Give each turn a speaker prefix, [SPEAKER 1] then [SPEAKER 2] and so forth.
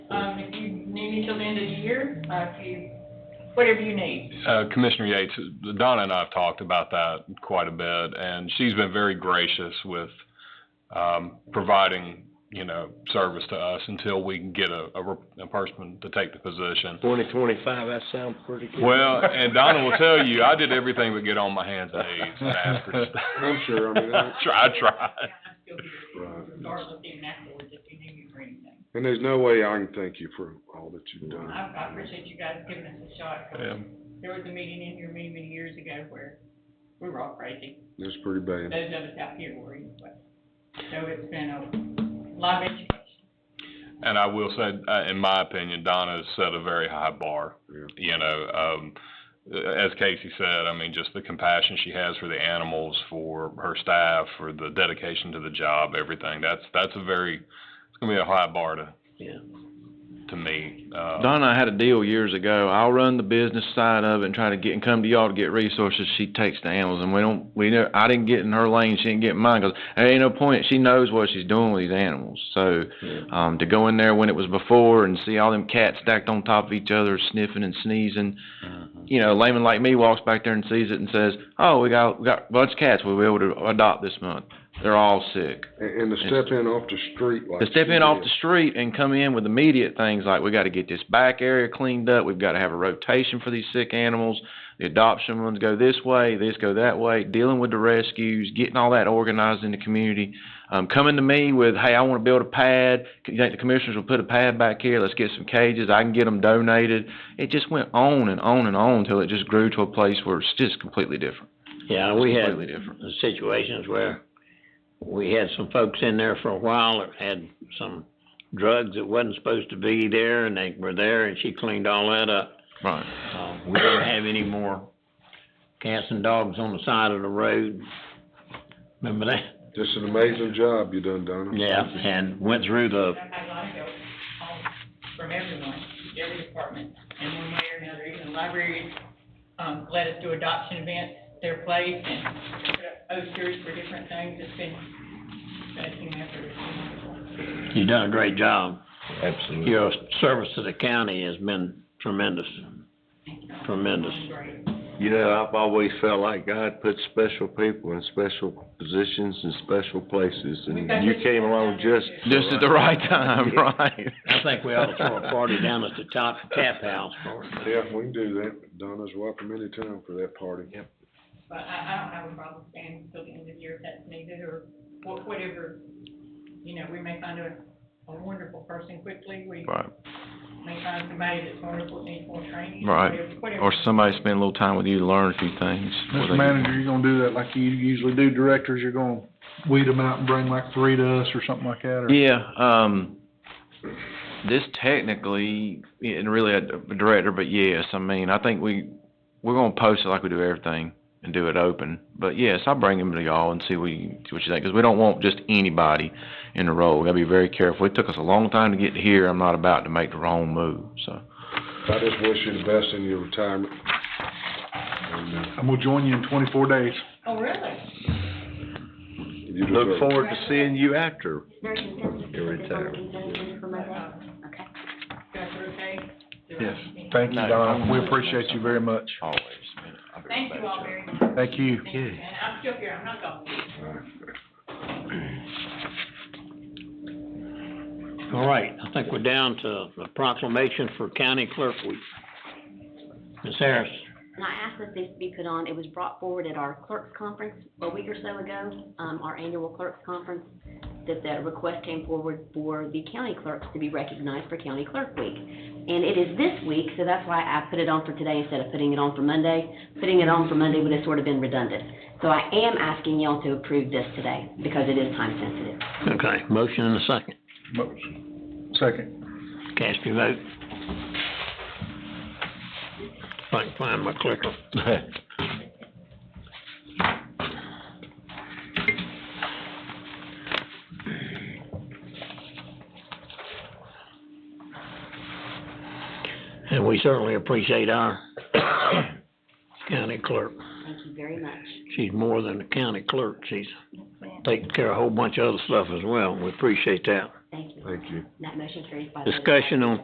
[SPEAKER 1] Um, maybe till the end of the year, uh, if you, whatever you need.
[SPEAKER 2] Uh, Commissioner Yates, Donna and I have talked about that quite a bit, and she's been very gracious with um, providing, you know, service to us until we can get a, a rep- a person to take the position.
[SPEAKER 3] Twenty twenty-five, that sounds pretty good.
[SPEAKER 2] Well, and Donna will tell you, I did everything but get on my hands and knees and ask her. to-
[SPEAKER 3] I'm sure, I mean, I-
[SPEAKER 2] I tried.
[SPEAKER 1] I'm still here,
[SPEAKER 4] Right.
[SPEAKER 1] regardless even afterwards, if you need me for anything.
[SPEAKER 4] And there's no way I can thank you for all that you've done.
[SPEAKER 1] I, I appreciate you guys giving us a shot.
[SPEAKER 2] Yeah.
[SPEAKER 1] There was a meeting in here many, many years ago where we were all crazy.
[SPEAKER 4] It's pretty bad.
[SPEAKER 1] Those of us out here were anyway. So it's been a lot of education.
[SPEAKER 2] And I will say, uh, in my opinion, Donna's set a very high bar.
[SPEAKER 4] Yeah.
[SPEAKER 2] You know, um, as Casey said, I mean, just the compassion she has for the animals, for her staff, for the dedication to the job, everything. That's that's a very it's gonna be a high bar to
[SPEAKER 3] Yeah.
[SPEAKER 2] to meet. Uh,
[SPEAKER 5] Donna and I had a deal years ago. I'll run the business side of it and try to get and come to y'all to get resources. She takes the animals, and we don't. We know I didn't get in her lane. She didn't get in mine because there ain't no point. She knows what she's doing with these animals. So um, to go in there when it was before and see all them cats stacked on top of each other, sniffing and sneezing. You know, a layman like me walks back there and sees it and says, "Oh, we got we got a bunch of cats we'll be able to adopt this month. They're all sick."
[SPEAKER 4] And, and to step in off the street like.
[SPEAKER 5] to step
[SPEAKER 4] she
[SPEAKER 5] in off
[SPEAKER 4] did.
[SPEAKER 5] the street and come in with immediate things like we got to get this back area cleaned up, we've got to have a rotation for these sick animals, the adoption ones go this way, this go that way, dealing with the rescues, getting all that organized in the community. Um, coming to me with, hey, I want to build a pad. You think the commissioners will put a pad back here? Let's get some cages. I can get them donated. It just went on and on and on until it just grew to a place where it's just completely different.
[SPEAKER 3] Yeah, we had
[SPEAKER 5] Completely different.
[SPEAKER 3] situations where we had some folks in there for a while that had some drugs that wasn't supposed to be there, and they were there, and she cleaned all that up.
[SPEAKER 5] Right.
[SPEAKER 3] Uh, we didn't have any more cats and dogs on the side of the road. Remember that?
[SPEAKER 4] Just an amazing job you done, Donna.
[SPEAKER 3] Yeah, and went through the,
[SPEAKER 1] I've had a lot of help um, from everyone, every department, in one way or another, even the libraries, um, let us do adoption events, their place, and put up posters for different things. It's been, been a team effort. It's been wonderful.
[SPEAKER 3] you done a great job.
[SPEAKER 5] Absolutely.
[SPEAKER 3] Your service to the county has been tremendous. Tremendous.
[SPEAKER 1] It's been great.
[SPEAKER 6] You know, I've always felt like God put special people in special positions and special places,
[SPEAKER 1] We've got
[SPEAKER 6] and you
[SPEAKER 1] this-
[SPEAKER 6] came along just.
[SPEAKER 5] Just at the right time, right?
[SPEAKER 3] I think we ought to throw a party down at the top tap house for it.
[SPEAKER 4] Yeah, we can do that. Donna's welcome anytime for that party.
[SPEAKER 1] But I, I don't have a problem staying till the end of the year if that's needed, or wha- whatever, you know, we may find a, a wonderful person quickly, we
[SPEAKER 5] Right.
[SPEAKER 1] may find somebody that's wonderful, needs more training.
[SPEAKER 5] Right.
[SPEAKER 1] whatever- whatever.
[SPEAKER 5] Or somebody spend a little time with you to learn a few things.
[SPEAKER 7] Mr. Manager, you're gonna do that like you usually do directors, you're gonna weed them out and bring like three to us or something like that, or?
[SPEAKER 5] Yeah, um, this technically, and really a director, but yes, I mean, I think we, we're gonna post it like we do everything and do it open. But yes, I'll bring them to y'all and see what you, see what you think, because we don't want just anybody in the role. We gotta be very careful. It took us a long time to get here. I'm not about to make the wrong move, so.
[SPEAKER 4] I just wish you the best in your retirement. And, uh,
[SPEAKER 7] I'm gonna join you in twenty-four days.
[SPEAKER 1] Oh, really?
[SPEAKER 4] you
[SPEAKER 6] Look
[SPEAKER 4] deserve it.
[SPEAKER 6] forward to seeing you after your
[SPEAKER 8] You're
[SPEAKER 6] retirement.
[SPEAKER 1] Uh,
[SPEAKER 8] Okay.
[SPEAKER 1] Guys are okay?
[SPEAKER 7] Yes. Thank you,
[SPEAKER 5] No,
[SPEAKER 7] Don.
[SPEAKER 5] I'm-
[SPEAKER 7] We appreciate you very much.
[SPEAKER 5] Always.
[SPEAKER 1] Thank you all very much.
[SPEAKER 7] Thank you.
[SPEAKER 1] Thank you. And I'm still here, I'm not gone.
[SPEAKER 3] All right, I think we're down to the proclamation for County Clerk Week. Ms. Harris,
[SPEAKER 8] And I asked that this be put on, it was brought forward at our clerks conference a week or so ago, um, our annual clerks conference, that the request came forward for the county clerks to be recognized for County Clerk Week. And it is this week, so that's why I put it on for today instead of putting it on for Monday. Putting it on for Monday would have sort of been redundant. So I am asking y'all to approve this today, because it is time sensitive.
[SPEAKER 3] okay, motion and a second.
[SPEAKER 7] Motion. Second.
[SPEAKER 3] Cast your vote. If I can find my clicker. And we certainly appreciate our county clerk.
[SPEAKER 8] Thank you very much.
[SPEAKER 3] She's more than a county clerk. She's taking care of a whole bunch of other stuff as well. We appreciate that.
[SPEAKER 8] Thank you.
[SPEAKER 4] Thank you.
[SPEAKER 8] That motion carries oh by the way.
[SPEAKER 3] Discussion on